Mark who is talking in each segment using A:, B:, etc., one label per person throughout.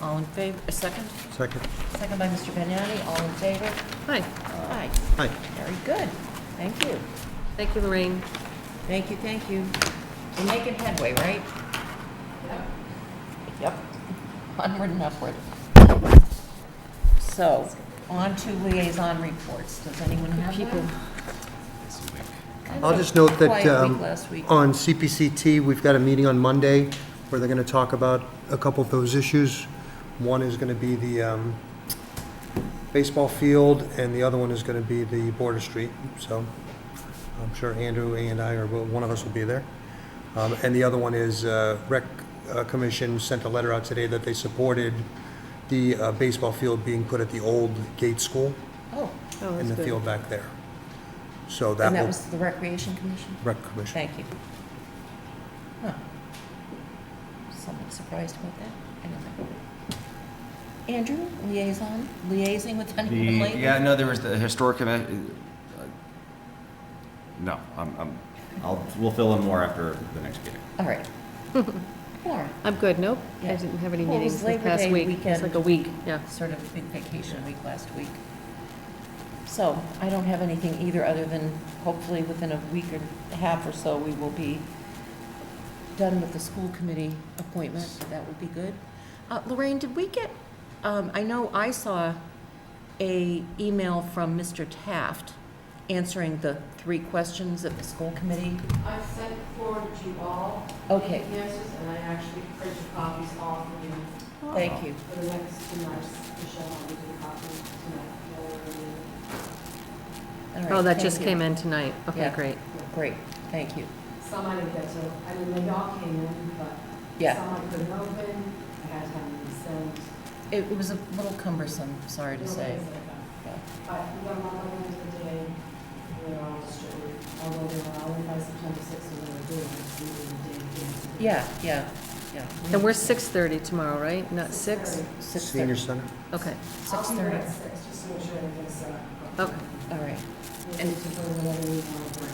A: All in favor, a second?
B: Second.
A: Second by Mr. Vignani, all in favor?
C: Hi,
A: Aye.
B: Hi.
A: Very good. Thank you.
C: thank you, Lorraine.
A: Thank you, thank you. We're making headway, right? Yep. Onward and upward. So, on to liaison reports. Does anyone have
C: People.
A: one? Kind
B: I'll
A: of
B: just note that
A: Quiet
B: um,
A: week last week.
B: on CPCT, we've got a meeting on Monday where they're going to talk about a couple of those issues. One is going to be the um, baseball field, and the other one is going to be the border street. So I'm sure Andrew and I, or one of us will be there. Um, And the other one is uh, Rec uh, Commission sent a letter out today that they supported the uh, baseball field being put at the old Gate School
A: Oh,
C: Oh,
B: in
C: that's
B: the
C: good.
B: field back there. So that
A: and that
B: will,
A: was the Recreation Commission?
B: Rec Commission.
A: Thank you. Huh. Somewhat surprised about that. Anyway. Andrew, liaison, liaising with
D: The,
A: anyone lately?
D: yeah, no, there was the historic, commi- uh, no, I'm, I'm, I'll, we'll fill in more after the next meeting.
A: All right. Lauren,
C: I'm good, nope, I
A: Yeah.
C: didn't have any
A: Well, it was
C: meetings this
A: Labor
C: past
A: Day
C: week.
A: weekend.
C: It's like a week, yeah.
A: sort of big vacation week last week. So I don't have anything either, other than hopefully within a week or a half or so, we will be done with the school committee appointment. That would be good. Uh, Lorraine, did we get, um, I know I saw a email from Mr. Taft answering the three questions of the school committee.
E: I sent forward to you all.
A: Okay.
E: the Answers, and I actually printed copies all for you
A: Thank you.
E: for the next two months. Michelle, I'll give you a copy tonight.
A: All right,
C: Oh, that
A: thank
C: just
A: you.
C: came in tonight, okay,
A: Yeah.
C: great.
A: Great, thank you.
E: Some I didn't get to, I mean, they all came in, but
A: Yeah,
E: some I couldn't open, I had time to send.
A: it it was a little cumbersome, sorry to say. Yeah.
E: But we got one of them today, they're all distributed, although they were all in by September sixth, so they were doing it, we were doing it.
A: Yeah, yeah, yeah.
C: And we're 6:30 tomorrow, right? Not 6?
A: Six
B: Senior
A: thirty.
B: Center?
C: Okay,
A: Six
E: I'll be there
A: thirty,
E: at six, just to make sure everything's set up.
C: Okay.
A: all right.
E: And it's just a little bit of work.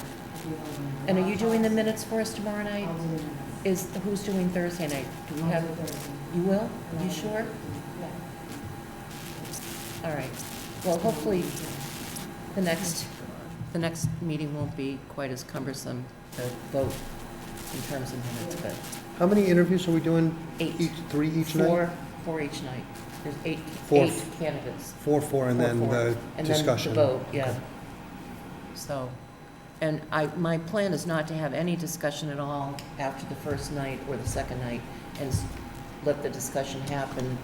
A: And are you doing the minutes for us tomorrow
E: I'll
A: night?
E: do the minutes.
A: Is, who's doing Thursday night? Do we
E: I'll
A: have,
E: do Thursday.
A: you will? You sure?
E: Yeah.
A: All right. Well, hopefully, the next, the next meeting won't be quite as cumbersome to vote in terms of minutes, but
B: How many interviews are we doing? Each,
A: eight,
B: three each night?
A: four, four each night. There's eight,
B: Four.
A: eight candidates.
B: Four, four, and
A: Four,
B: then
A: four.
B: the
A: And then the
B: discussion.
A: vote, yeah.
B: Okay.
A: So, and I, my plan is not to have any discussion at all after the first night or the second night, and s- let the discussion happen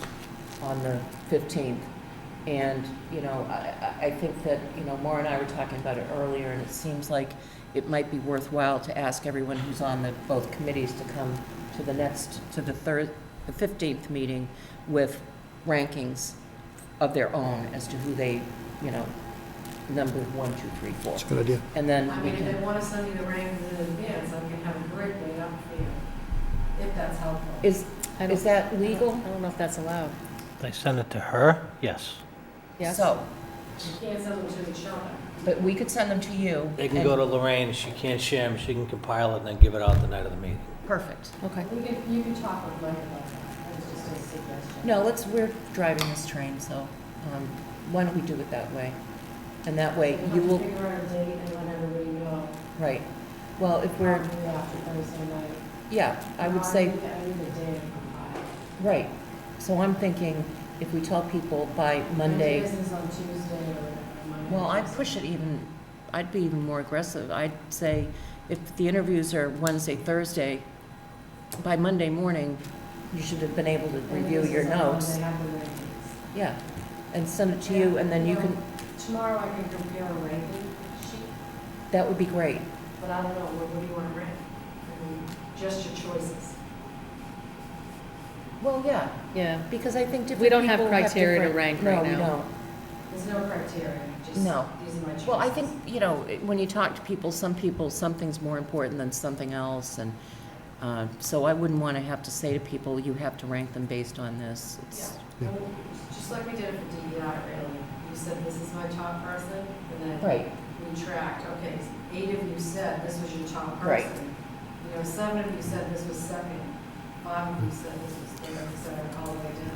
A: on the 15th. And, you know, I, I I think that, you know, Maura and I were talking about it earlier, and it seems like it might be worthwhile to ask everyone who's on the, both committees to come to the next, to the third, the 15th meeting with rankings of their own as to who they, you know, number one, two, three, four.
B: That's a good idea.
A: And then
E: I
A: we
E: mean, if they
A: can,
E: want to send you the rankings in advance, I can have a great day up for you, if that's helpful.
A: is,
C: I
A: is
C: don't-
A: that
C: I
A: legal?
C: don't I don't know if that's allowed.
F: They sent it to her? Yes.
C: Yes?
A: So,
E: You can't send them to each other.
A: but we could send them to you.
F: They can go to
A: and-
F: Lorraine, she can't share them, she can compile it and then give it out the night of the meeting.
A: Perfect.
C: Okay.
E: We could, you could talk with Mike about that, that's just a suggestion.
A: No, let's, we're driving this train, so um, why don't we do it that way? And that way
E: We'll have
A: you
E: to
A: will,
E: Figure out a date and let everybody know,
A: right. Well, if we're,
E: probably after Thursday night.
A: yeah, I would
E: I
A: say,
E: need I need a day to compile.
A: right. So I'm thinking if we tell people by
E: Thursday
A: Monday,
E: is on Tuesday or whatever, Monday.
A: well, I'd
E: Tuesday.
A: push it even, I'd be even more aggressive. I'd say if the interviews are Wednesday, Thursday, by Monday morning, you should have been able to
E: And
A: review
E: this
A: your
E: is on Monday,
A: notes.
E: have the rankings.
A: Yeah, and send it to you, and then you can,
E: Tomorrow I can compare a ranking sheet,
A: that would be great.
E: but I don't know, what, what do you want to rank? I mean, just your choices.
A: Well, yeah,
C: Yeah,
A: because I think different
C: We don't have
A: people have
C: criteria to
A: different-
C: rank
A: no,
C: right
A: we
C: now.
A: don't.
E: There's no criteria, just, these
A: No.
E: are my choices.
A: Well, I think, you know, it- when you talk to people, some people, something's more important than something else, and uh, so I wouldn't want to have to say to people, you have to rank them based on this.
E: Yeah,
A: It's-
B: Yeah.
E: I mean, just like we did it for DEI, really. You said, this is my top person, and then
A: Right,
E: we tracked, okay, eight of you said this was your top
A: Right.
E: person. You know, seven of you said this was second, five of you said this was third, et cetera, all the way down.